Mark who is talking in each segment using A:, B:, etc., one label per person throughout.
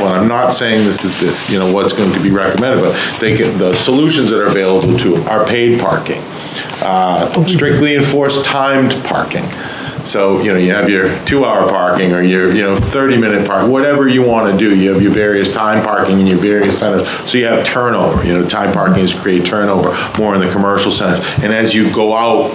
A: Well, I'm not saying this is the, you know, what's going to be recommended, but they can, the solutions that are available to them are paid parking, uh, strictly enforced timed parking. So, you know, you have your two-hour parking or your, you know, 30-minute park, whatever you want to do. You have your various time parking and your various centers, so you have turnover. You know, time parking is create turnover more in the commercial centers. And as you go out,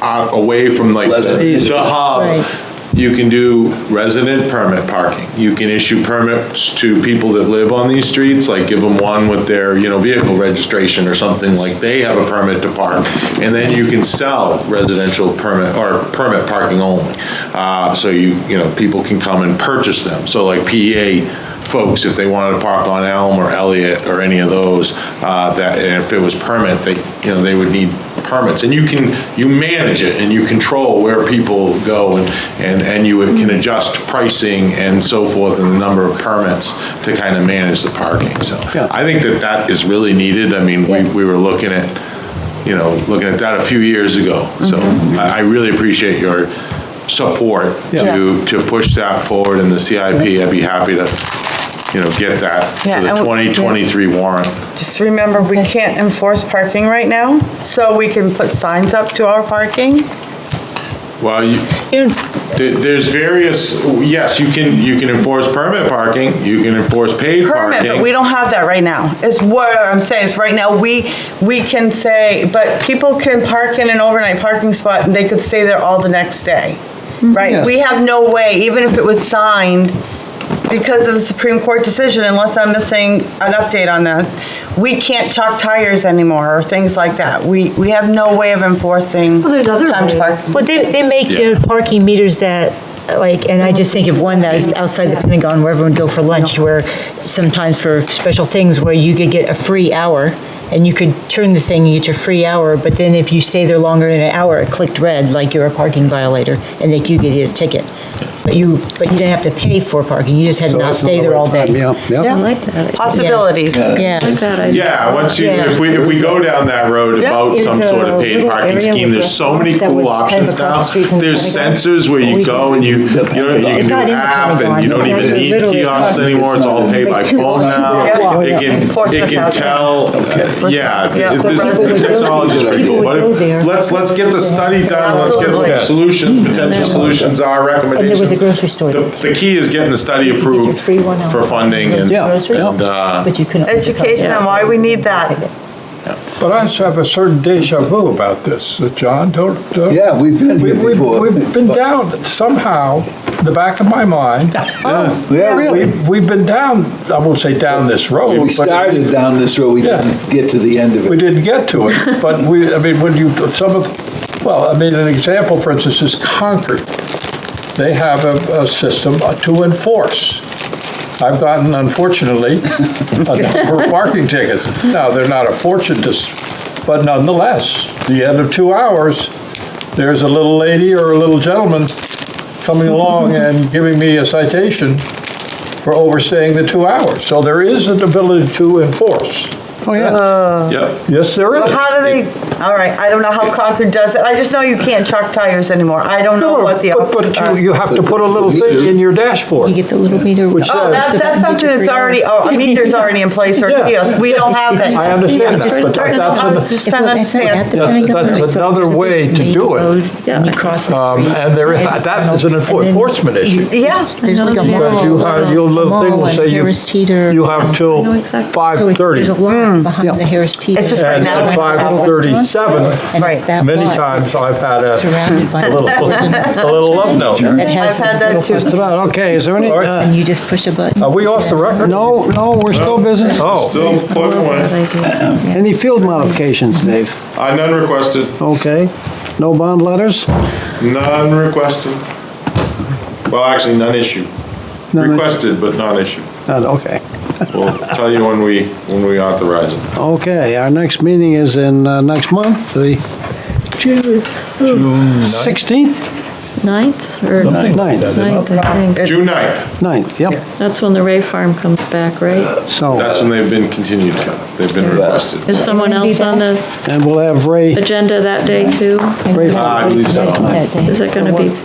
A: out away from like
B: Less
A: the
B: efficient.
A: the
C: Right.
A: hub, you can do resident permit parking. You can issue permits to people that live on these streets, like give them one with their, you know, vehicle registration or something, like they have a permit to park. And then you can sell residential permit, or permit parking only. Uh, So you, you know, people can come and purchase them. So like PEA folks, if they wanted to park on Elm or Elliott or any of those, uh, that, and if it was permit, they, you know, they would need permits. And you can, you manage it and you control where people go and, and and you can adjust pricing and so forth and the number of permits to kind of manage the parking, so.
B: Yeah.
A: I think that that is really needed. I mean, we, we were looking at, you know, looking at that a few years ago. So I, I really appreciate your support
B: Yeah.
A: to, to push that forward in the CIP. I'd be happy to, you know, get that
D: Yeah,
A: for the
D: I would-
A: 2023 warrant.
D: Just remember, we can't enforce parking right now, so we can put signs up to our parking.
A: Well, you, there- there's various, yes, you can, you can enforce permit parking, you can enforce paid
D: Permit, but we
A: parking.
D: don't have that right now. Is what I'm saying, is right now, we, we can say, but people can park in an overnight parking spot, and they could stay there all the next day, right?
B: Yes.
D: We have no way, even if it was signed, because of the Supreme Court decision, unless I'm missing an update on this, we can't chalk tires anymore, or things like that. We, we have no way of enforcing.
E: Well, there's other
D: timed
E: ways.
D: parking.
C: Well, they, they make you know, parking meters that, like, and I just think of one that is outside the Pentagon where everyone go for lunch, where sometimes for special things where you could get a free hour and you could turn the thing, you get your free hour, but then if you stay there longer than an hour, it clicked red, like you're a parking violator, and they you could get a ticket. But you, but you didn't have to pay for parking, you just had to
B: So
C: not
B: that's
C: stay there
B: another
C: all
B: time,
C: day.
B: Yeah, yeah.
E: I like that.
D: possibilities.
C: Yeah.
E: I like that idea.
A: Yeah, once you,
C: Yeah.
A: if we, if we go down that road
D: Yeah.
A: about some
C: Is
A: sort
C: a
A: of paid
C: little
A: parking
C: area
A: scheme,
C: with
A: there's so many
C: restaurants
A: cool
C: that was kind of
A: options now.
C: across the street from the
A: There's
C: Pentagon.
A: sensors where you
C: We-
A: go and you, you know, you can
C: It's
A: do
C: not in the
A: app and
C: Pentagon.
A: you don't
C: It's
A: even
C: actually
A: need
C: literally
A: kiosks
C: across the
A: anymore, it's all pay by
C: Like two
A: phone
C: blocks.
A: now.
D: Yeah.
A: It can, it can tell, uh, yeah,
D: Yeah.
A: th- this-
D: People
A: this
C: would go-
A: technology is pretty
C: people
A: cool. But
C: would go there.
A: if- let's, let's get the study done, let's get what the solutions, potential solutions are, recommendations.
C: was a grocery store.
A: The the key is getting the study approved
C: free one hour.
A: for funding and,
B: Yeah.
A: and, uh,
C: But you couldn't.
D: Oh, Education on why we need that.
F: But I have a certain deja vu about this, uh, John, don't, don't.
B: Yeah, we've been
F: We-
B: here
F: we-
B: before.
F: We've been down somehow, in the back of my mind.
B: Yeah, really.
F: We've, we've been down, I won't say down this road.
B: We
F: but
B: started down this road, we
F: Yeah.
B: didn't get to the end of
F: We
B: it.
F: didn't get to it, but we, I mean, when you, some of, well, I mean, an example, for instance, is Concord. They have a, a system to enforce. I've gotten, unfortunately, a number of parking tickets. Now, they're not a fortune to, s- but nonetheless, the end of two hours, there's a little lady or a little gentleman coming along and giving me a citation for overstaying the two hours. So there is an ability to enforce.
B: Oh, yeah.
A: yep.
F: Yes, there is.
D: But how do they, all right, I don't know how Concord does it, I just know you can't chuck tires anymore, I don't know
F: No,
D: what the
F: but-
D: options
F: But
D: are.
F: you, you have to put a little thing in your dashboard.
C: You get the little meter.
F: Which
C: which
D: Oh,
F: says-
D: that,
C: says-
D: that's something that's already, oh, a meter's already in place or a
F: uh, Yeah.
D: kiosk, we don't have that.
F: I understand
C: It's
F: that, but
C: just-
F: that-
D: I was
F: that's,
D: just trying to understand.
F: Yeah, that's another way to do it.
C: And you cross
F: an-
C: the
F: um,
C: street.
F: and there is, that is an
C: And then-
F: enforcement issue.
D: Yeah,
C: There's like a
E: Because
F: Because
C: mall.
F: you have, your little thing will say you, you have till
E: I know exactly.
C: So it's- There's a
F: 5:30.
C: lot behind the Harris Teeter.
D: Mm. It's just right
F: And
D: now.
F: at 5:37,
C: And it's
D: Right.
C: that
F: many
C: lot
F: times
C: that's
F: I've had a
C: surrounded by
F: a little, a little love note.
C: That
D: I've had
C: has these
D: that
C: little
D: too.
C: parking
G: About, okay, is there any,
F: All right.
G: uh,
C: And you just push a button.
F: Are we off the record?
G: no, no, we're still business?
F: Oh,
A: Still plugging away.
G: Any field modifications, Dave?
A: Uh, none requested,
G: Okay, no bond letters?
A: none requested. Well, actually, none issued.
G: None-
A: Requested, but not issued.
G: None, okay.
A: We'll tell you when we, when we authorize it.
G: Okay, our next meeting is in, uh, next month, the June 16th,
E: Ninth or?
G: Something like that,
E: Ninth, I think.
A: June 9th,
G: 9th, yep.
E: That's when the Ray Farm comes back, right?
G: So,
A: that's when they've been continued to, they've been requested.
E: Is someone else on the
G: and we'll have Ray,
E: agenda that day too?
G: Ray,
A: Uh, I believe so.
E: Is it going to be?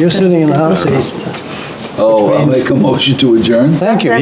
G: you're sitting in the hot seat.
H: Oh, I'll make a motion to adjourn.
B: Thank you.